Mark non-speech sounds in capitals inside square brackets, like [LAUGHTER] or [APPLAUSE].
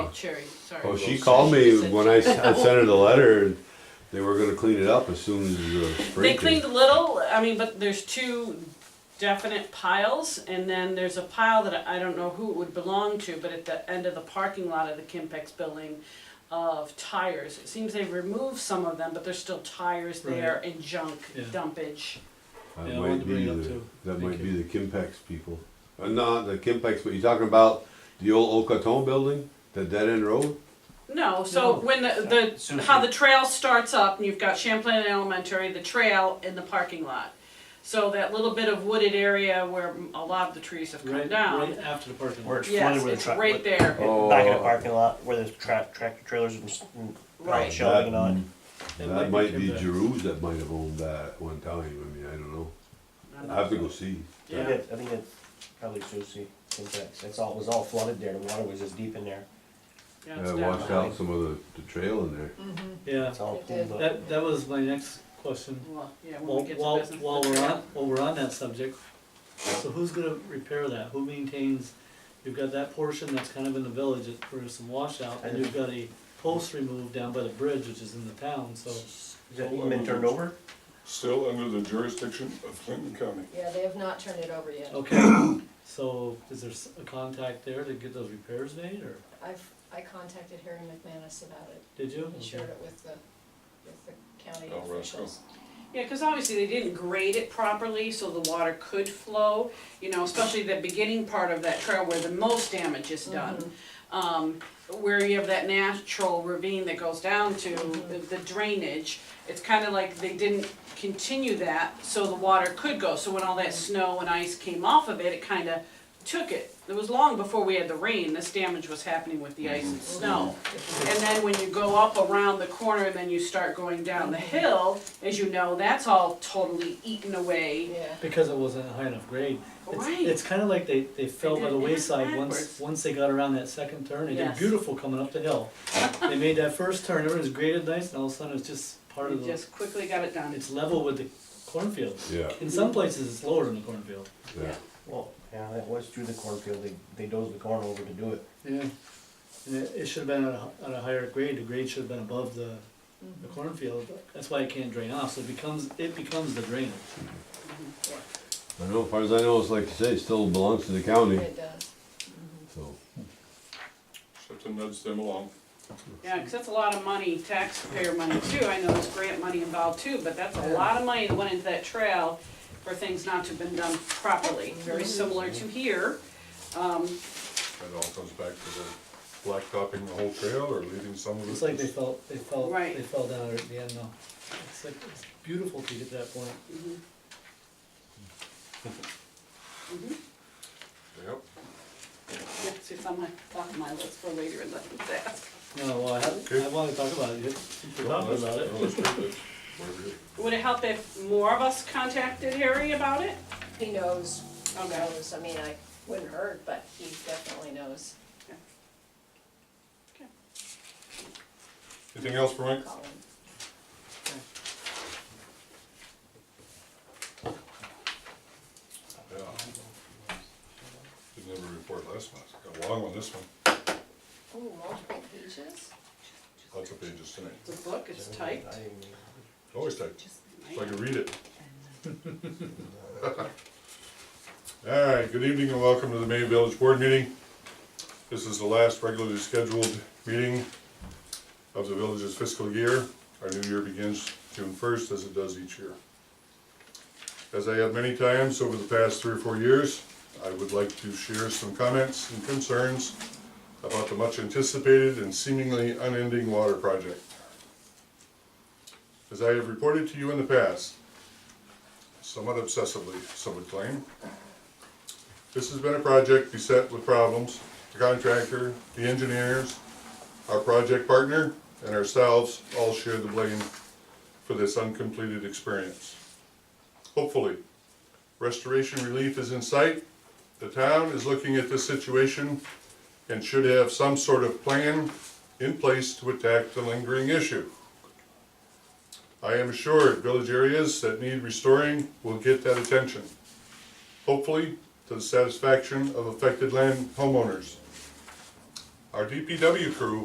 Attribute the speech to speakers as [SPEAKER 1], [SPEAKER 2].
[SPEAKER 1] Oh, Cherry, sorry.
[SPEAKER 2] Well, Oh, she called me
[SPEAKER 1] said-
[SPEAKER 2] when I, s- I sent her the letter and they were gonna clean it up as soon as the
[SPEAKER 1] They
[SPEAKER 2] spring
[SPEAKER 1] cleaned
[SPEAKER 2] came.
[SPEAKER 1] a little, I mean, but there's two definite piles, and then there's a pile that I don't know who it would belong to, but at the end of the parking lot of the Kimpex building of tires. It seems they removed some of them, but there's still tires there and junk
[SPEAKER 3] Yeah.
[SPEAKER 1] dumpage.
[SPEAKER 2] That
[SPEAKER 3] Yeah, I wanted
[SPEAKER 2] might
[SPEAKER 3] to
[SPEAKER 2] be
[SPEAKER 3] bring it up
[SPEAKER 2] the,
[SPEAKER 3] too.
[SPEAKER 2] that
[SPEAKER 3] Thank
[SPEAKER 2] might be the
[SPEAKER 3] you.
[SPEAKER 2] Kimpex people. Uh, not the Kimpex, but you talking about the old Okoton building, the dead end road?
[SPEAKER 1] No, so
[SPEAKER 3] No.
[SPEAKER 1] when the,
[SPEAKER 3] So
[SPEAKER 1] the, how
[SPEAKER 3] she-
[SPEAKER 1] the trail starts up, and you've got Champlain Elementary, the trail, and the parking lot. So that little bit of wooded area where a lot of the trees have come
[SPEAKER 3] Right,
[SPEAKER 1] down.
[SPEAKER 3] right after the parking
[SPEAKER 4] Where
[SPEAKER 3] lot.
[SPEAKER 4] it's flooded
[SPEAKER 1] Yes,
[SPEAKER 4] with
[SPEAKER 1] it's
[SPEAKER 4] a truck.
[SPEAKER 1] right there.
[SPEAKER 4] Back in the
[SPEAKER 2] Oh.
[SPEAKER 4] parking lot where there's tra- tractor trailers and, s- and
[SPEAKER 1] Right.
[SPEAKER 4] shelving and all that.
[SPEAKER 3] That
[SPEAKER 2] That
[SPEAKER 3] might
[SPEAKER 2] might
[SPEAKER 3] be
[SPEAKER 2] be
[SPEAKER 3] Kimpex.
[SPEAKER 2] Jerus that might have owned that at one time, I mean, I don't know.
[SPEAKER 1] I'm
[SPEAKER 2] I
[SPEAKER 1] not
[SPEAKER 2] have to go see.
[SPEAKER 4] I think that- I think that's probably Susie, Kimpex, that's all, it was all flooded there, the water was just deep in there,
[SPEAKER 1] Yeah, it's
[SPEAKER 2] I
[SPEAKER 1] down.
[SPEAKER 2] washed out some of the, the trail in there.
[SPEAKER 3] Yeah,
[SPEAKER 4] it's all
[SPEAKER 5] It did.
[SPEAKER 4] pulled up.
[SPEAKER 3] that, that was my next question.
[SPEAKER 1] Well, yeah, when
[SPEAKER 3] While,
[SPEAKER 1] we get to
[SPEAKER 3] while,
[SPEAKER 1] business.
[SPEAKER 3] while we're on, while we're on that subject, so who's gonna repair that? Who maintains? You've got that portion that's kind of in the village that- for some washout, and you've got a post removed down by the bridge, which is in the town, so.
[SPEAKER 4] Is that even been turned over?
[SPEAKER 6] Still under the jurisdiction of Clinton County.
[SPEAKER 5] Yeah, they have not turned it over
[SPEAKER 3] Oh.
[SPEAKER 5] yet.
[SPEAKER 3] Okay, so is there s- a contact there to get those repairs made, or
[SPEAKER 5] I've, I contacted Harry McManus about it,
[SPEAKER 3] did you?
[SPEAKER 5] and shared it with the, with the county
[SPEAKER 6] Oh, Roscoe.
[SPEAKER 5] officials.
[SPEAKER 1] Yeah, because obviously they didn't grade it properly, so the water could flow, you know, especially the beginning part of that trail where the most damage is done. Um, where you have that natural ravine that goes down to the- the drainage, it's kind of like they didn't continue that, so the water could go. So when all that snow and ice came off of it, it kind of took it. It was long before we had the rain, this damage was happening with the ice and snow. And then when you go up around the corner and then you start going down the hill, as you know, that's all totally eaten away.
[SPEAKER 5] Yeah,
[SPEAKER 3] Because it wasn't a high enough grade. It's,
[SPEAKER 1] Right.
[SPEAKER 3] it's kind of like they, they fell by
[SPEAKER 1] did
[SPEAKER 3] the
[SPEAKER 1] it
[SPEAKER 3] wayside
[SPEAKER 1] backwards.
[SPEAKER 3] once, once they got around that second turn. They did
[SPEAKER 1] Yes.
[SPEAKER 3] beautiful coming up the hill.
[SPEAKER 1] [LAUGHS]
[SPEAKER 3] They made that first turn, everything was graded nice, and all of a sudden it's just part
[SPEAKER 1] You
[SPEAKER 3] of the,
[SPEAKER 1] just quickly got it done.
[SPEAKER 3] it's level with the cornfield.
[SPEAKER 2] Yeah,
[SPEAKER 3] In some places, it's lower than the cornfield.
[SPEAKER 2] yeah.
[SPEAKER 4] Well, yeah, that was through the cornfield, they, they dozed the corn over to do it.
[SPEAKER 3] Yeah. And it, it should have been at a, at a higher grade, the grade should have been above the, the cornfield. That's why it can't drain off, so it becomes, it becomes the drainage.
[SPEAKER 2] I know, as far as I know, it's like you say, it still belongs to the county,
[SPEAKER 5] it does. Mm-hmm.
[SPEAKER 2] so.
[SPEAKER 6] Except to nudge them along.
[SPEAKER 1] Yeah, because that's a lot of money, taxpayer money too. I know there's grant money involved too, but that's a lot of money that went into that trail for things not to have been done properly. Very
[SPEAKER 3] Mm-hmm.
[SPEAKER 1] similar to here. Um,
[SPEAKER 6] It all comes back to the blacktopping the whole trail or leaving some of it.
[SPEAKER 3] It's like they fell, they fell,
[SPEAKER 1] Right.
[SPEAKER 3] they fell down at the end though. It's like, it's beautiful to get to that point.
[SPEAKER 6] Yep.
[SPEAKER 1] yeah, see, it's on my, on my list for later in the desk.
[SPEAKER 3] No, well, I, have- I wanna talk about it, we're talking about it.
[SPEAKER 6] Well, that's good, that's whatever you-
[SPEAKER 1] Would it help if more of us contacted Harry about it? Oh,
[SPEAKER 5] He knows, he
[SPEAKER 1] Okay.
[SPEAKER 5] knows, I mean, I wouldn't hurt, but he definitely knows.
[SPEAKER 6] Anything else for Mike?
[SPEAKER 5] Call him.
[SPEAKER 6] Yeah. Didn't have a report last month. Got a long one this one.
[SPEAKER 5] Ooh, Oh, multiple pages?
[SPEAKER 6] Lots of pages tonight.
[SPEAKER 1] The book is typed.
[SPEAKER 6] Always tight. So I can read it. [LAUGHS] All right, good evening and welcome to the May Village Board meeting. This is the last regularly scheduled meeting of the village's fiscal year. Our new year begins June first, as it does each year. As I have many times over the past three or four years, I would like to share some comments and concerns about the much anticipated and seemingly unending water project. As I have reported to you in the past, somewhat obsessively, some would claim, this has been a project beset with problems. The contractor, the engineers, our project partner, and ourselves all share the blame for this uncompleted experience. Hopefully, restoration relief is in sight. The town is looking at this situation and should have some sort of plan in place to attack the lingering issue. I am assured village areas that need restoring will get that attention. Hopefully, to the satisfaction of affected land homeowners. Our DPW crew